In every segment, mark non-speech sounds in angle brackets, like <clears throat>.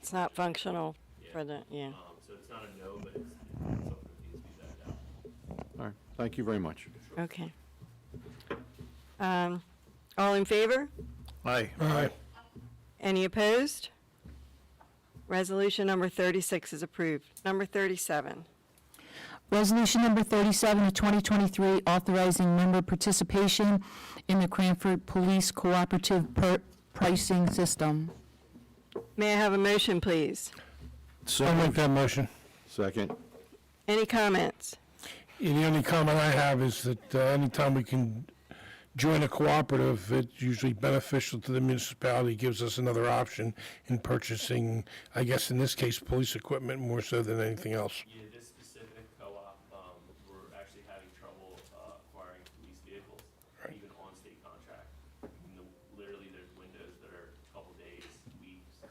it's not functional for the, yeah. Um, so it's not a no, but it's, it's something that needs to be vetted out. All right, thank you very much. Okay. Um, All in favor? Aye. Any opposed? Resolution number 36 is approved. Number 37, Resolution number 37 of 2023, authorizing member participation in the Cranford Police Cooperative Per- Pricing System. may I have a motion, please? I'll make that motion. Second, Any comments? Yeah, The only comment I have is that uh, anytime we can join a cooperative, it's usually beneficial to the municipality, gives us another option in purchasing, I guess in this case, police equipment more so than anything else. Yeah, this specific co-op, um, we're actually having trouble uh, acquiring police vehicles, even on state contract. I mean, the- Literally, there's windows that are a couple days, weeks.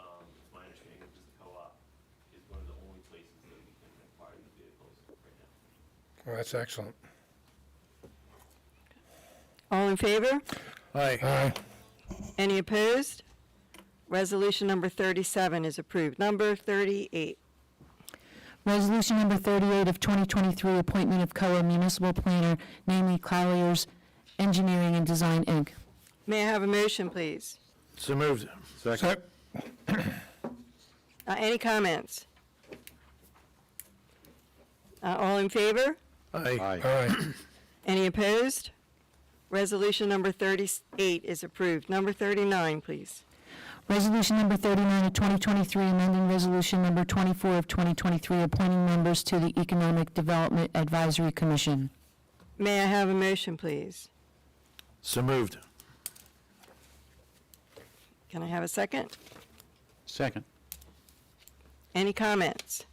Um, it's my understanding that this co-op is one of the only places that we can acquire these vehicles right now. Well, that's excellent. All in favor? Aye. Aye. Any opposed? Resolution number 37 is approved. Number 38, Resolution number 38 of 2023, appointment of COA municipal planner, namely Colliers Engineering and Design, Inc. may I have a motion, please? So moved. Second, Sec- Uh, Any comments? Uh, All in favor? aye. Aye. Any opposed? Resolution number 38 is approved. Number 39, please. Resolution number 39 of 2023, amending resolution number 24 of 2023, appointing members to the Economic Development Advisory Commission. May I have a motion, please? So moved. Can I have a second? Second. Any comments?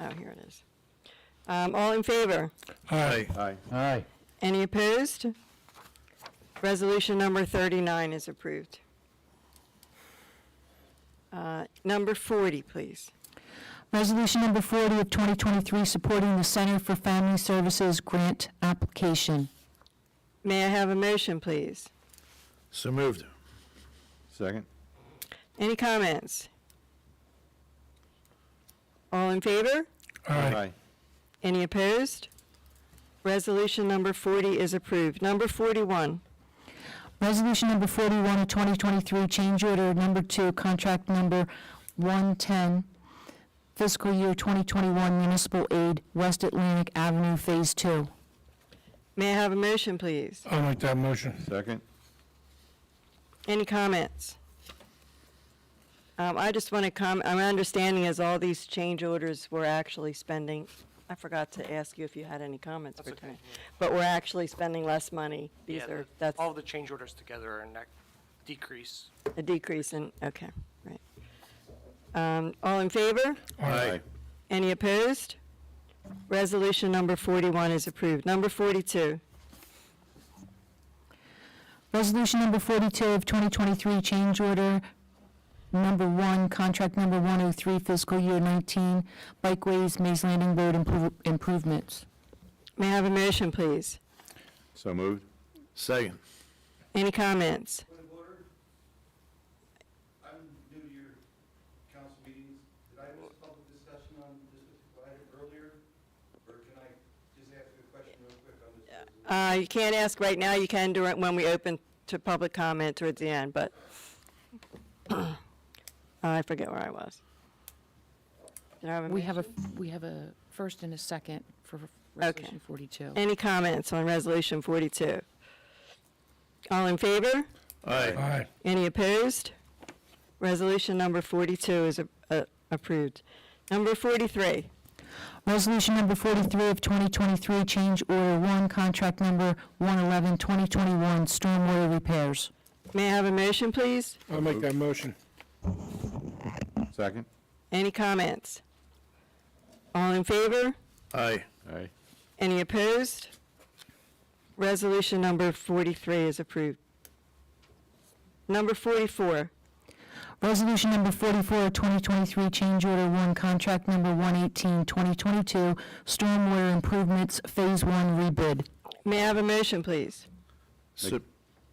Oh, here it is. Um, All in favor? Aye. Aye. Aye. Any opposed? Resolution number 39 is approved. Uh, Number 40, please. Resolution number 40 of 2023, supporting the Center for Family Services grant application. May I have a motion, please? So moved. Second, Any comments? All in favor? aye. Any opposed? Resolution number 40 is approved. Number 41, Resolution number 41 of 2023, change order number two, contract number 110, fiscal year 2021 municipal aid, West Atlantic Avenue Phase Two. may I have a motion, please? I'll make that motion. Second, Any comments? Um, I just want to comment, my understanding is all these change orders were actually spending, I forgot to ask you if you had any comments for tonight, but we're actually spending less money. These Yeah, are, the- that's all the change orders together and that decrease. a decrease in, okay, right. Um, All in favor? aye. Any opposed? Resolution number 41 is approved. Number 42, Resolution number 42 of 2023, change order number one, contract number 103, fiscal year 19, bikeways, Maze Landing Road improve- improvements. may I have a motion, please? So moved. Second. Any comments? Point of order. I'm new to your council meetings. Did I miss a public discussion on this particular item earlier? Or can I just ask you a question real quick on this? resolution? Uh, You can't ask right now, you can do it when we open to public comment towards the end, but <clears throat> I forget where I was. Did I have a We have a, motion? we have a first and a second for Okay. Resolution 42. Any comments on Resolution 42? All in favor? Aye. Aye. Any opposed? Resolution number 42 is a- a- approved. Number 43, Resolution number 43 of 2023, change order one, contract number 111, 2021, stormwater repairs. may I have a motion, please? I'll make that motion. Second? Any comments? All in favor? Aye. Aye. Any opposed? Resolution number 43 is approved. Number 44, Resolution number 44 of 2023, change order one, contract number 118, 2022, stormwater improvements, phase one rebid. may I have a motion, please? So